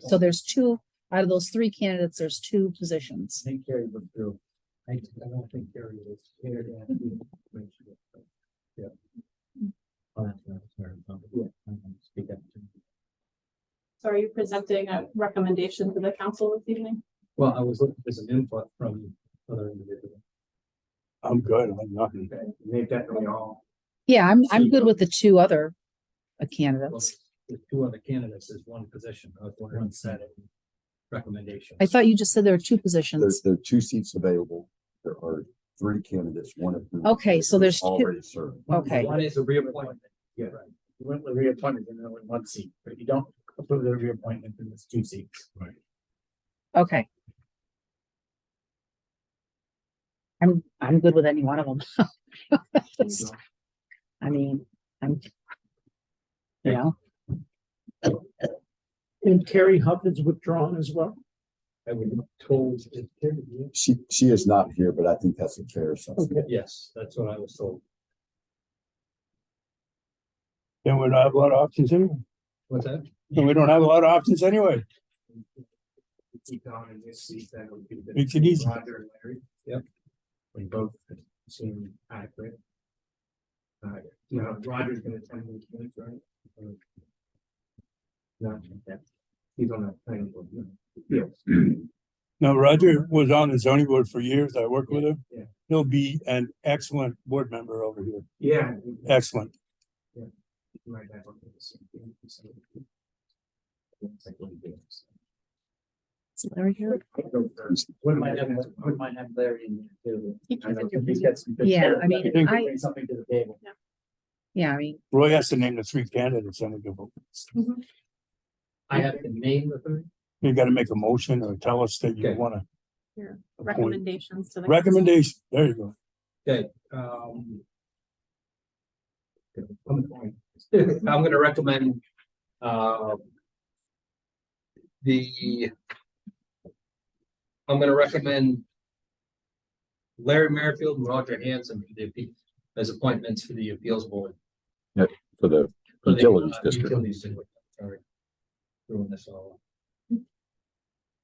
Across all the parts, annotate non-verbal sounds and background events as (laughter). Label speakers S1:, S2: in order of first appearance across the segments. S1: So there's two, out of those three candidates, there's two positions.
S2: I think Gary withdrew. I, I don't think Gary was here. to ask you to make sure. Yeah. Oh, that's right, sorry, I'm gonna speak up too.
S3: So are you presenting a recommendation to the council this evening?
S2: Well, I was looking for some input from other individuals.
S4: I'm good, I'm nothing.
S2: Okay, they've definitely all,
S1: Yeah, I'm, I'm good
S2: Two.
S1: with the two other uh,
S2: well,
S1: candidates.
S2: the two other candidates is one position, I was wondering, one set of recommendations.
S1: I thought you just said there are two
S4: There's,
S1: positions.
S4: there are two seats available. There are three candidates, one of whom.
S1: Okay, so there's two-
S4: Already served.
S1: Okay,
S2: One is a reappointment.
S5: Yeah, right. You went with reappointment and only one seat, but you don't approve the reappointment in it's two seats.
S1: okay. I'm, I'm good with any one of them. (laughs) I mean, I'm. You know,
S5: And Carrie Hubbard's withdrawn as well?
S2: I was told, it-
S4: She, she is not here, but I think that's a fair assessment.
S2: yes, that's what I was told.
S6: Then we don't have a lot of options anyway.
S2: What's that?
S6: Then we don't have a lot of options anyway.
S5: Keep down in this seat, that would be. the-
S6: Makes it easy.
S5: Roger and Larry.
S2: Yep.
S5: We both seem accurate. Uh, you know, Roger's gonna attend the meeting, right? Or- Not that, he's on that planning board. no.
S6: Now Roger was on the zoning board for years. I worked with him.
S5: Yeah.
S6: He'll be an excellent board member over here.
S5: Yeah.
S6: Excellent.
S5: Right back on the same thing, so. It's like one of those.
S1: is Larry here?
S5: What might have, what might have Larry in there too. I know, he's got some good
S1: Yeah,
S5: character.
S1: I mean,
S5: He could
S1: I-
S5: bring Something to the table.
S1: Yeah, I mean,
S6: Roy has to name the three candidates and we can vote.
S2: I have to name the third.
S6: You gotta make a motion or tell us that you
S2: Okay.
S6: wanna
S3: Your
S6: appoint.
S3: Recommendations to the.
S6: Recommendation, there you go.
S2: Um. (laughs) I'm gonna recommend, uh. The. I'm gonna recommend. Larry Merrifield and Roger Hanson for the, appe- as appointments for the appeals board.
S4: For the
S2: for the, uh,
S4: Utilities district.
S2: Utilities district, sorry. Doing this all.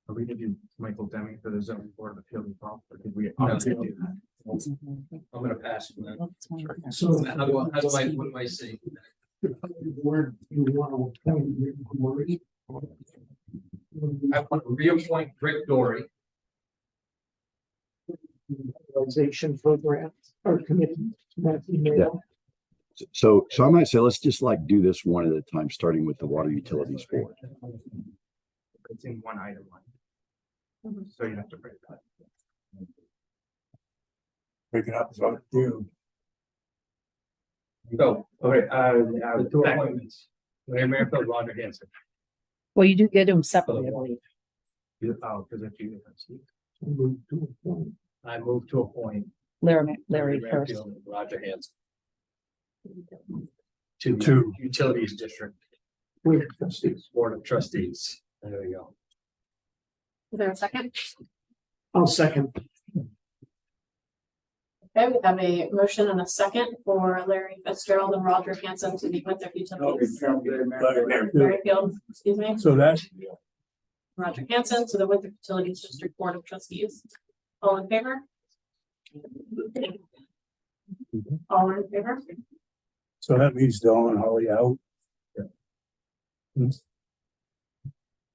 S5: Are we gonna do Michael Deming for the zoning board of appeal involved, or did we?
S2: No.
S5: do that?
S2: I'm gonna pass from that.
S5: So.
S2: How do I, how do I, what do I say?
S5: Word, you want to appoint Rick Dory?
S2: I want to reappoint Rick Dory.
S5: Organization program or committee, that's email.
S4: So, so I might say, let's just like do this one at a time, starting with the water utilities board.
S5: It's in one item one.
S3: Mhm.
S5: So you have to break that.
S6: Break it up. So, dude,
S2: So,
S5: Okay, uh,
S2: the two appointments, Larry Merrifield, Roger Hanson.
S1: well, you do get them separately, I believe.
S5: Oh, because I do. Move to appoint.
S2: I move to appoint.
S1: Larry, Larry first.
S2: Merrifield and Roger Hanson to
S6: Two.
S2: the Utilities District
S5: With trustees.
S2: Board of Trustees. There we go.
S3: Is there a second?
S5: I'll second.
S3: Okay, we have a motion and a second for Larry Fitzgerald and Roger Hanson to the Winthrop Utilities. Merrifield, excuse me,
S6: So that,
S3: Roger Hanson to the Winthrop Utilities District Board of Trustees. All in favor? All in favor?
S6: so that leaves Dawn and Holly out.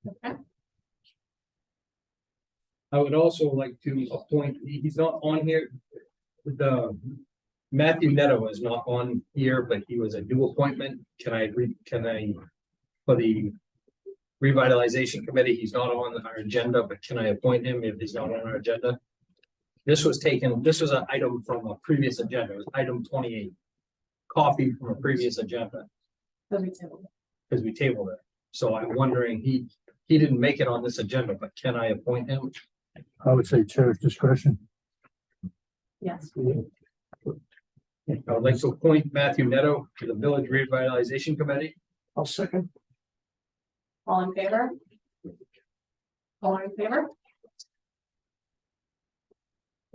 S3: Okay.
S2: I would also like to appoint, he- he's not on here, the Matthew Neto is not on here, but he was a new appointment. Can I re, can I, for the revitalization committee, he's not on our agenda, but can I appoint him if he's not on our agenda? This was taken, this was an item from a previous agenda, it was item twenty-eight. Copy from a previous agenda,
S3: So we table.
S2: because we tabled it. So I'm wondering, he, he didn't make it on this agenda, but can I appoint him?
S6: I would say chair's discretion.
S3: Yes,
S2: I would like to appoint Matthew Neto to the Village Revitalization Committee.
S5: I'll second.
S3: all in favor? All in favor?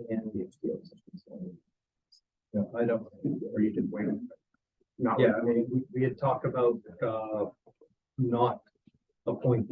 S2: And No, I don't,
S5: Or you did wait. Not.
S2: yeah, I mean, we, we had talked about, uh, not appointing